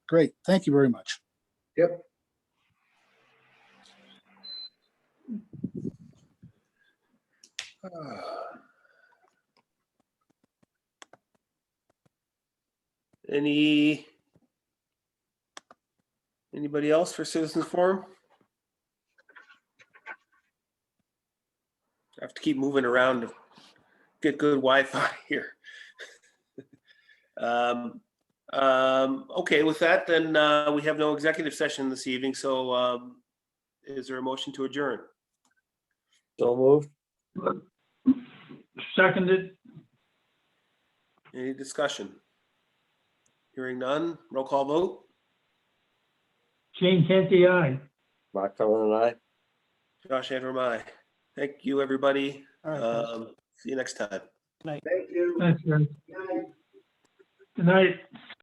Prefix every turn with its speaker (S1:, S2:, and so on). S1: Great. Thank you very much.
S2: Yep.
S3: Any? Anybody else for citizens forum? I have to keep moving around to get good Wi-Fi here. Um, um, Okay, with that, then uh, we have no executive session this evening, so um, is there a motion to adjourn?
S4: So moved.
S5: Seconded,
S3: Any discussion? Hearing none, roll call vote,
S5: Gene Canty, aye.
S4: Mark Cullen and I.
S3: Josh Antrimai. Thank you, everybody.
S1: All right.
S3: Um, See you next time.
S2: Thank you.
S5: Thanks, Jerry.
S2: Good night.
S5: Good night.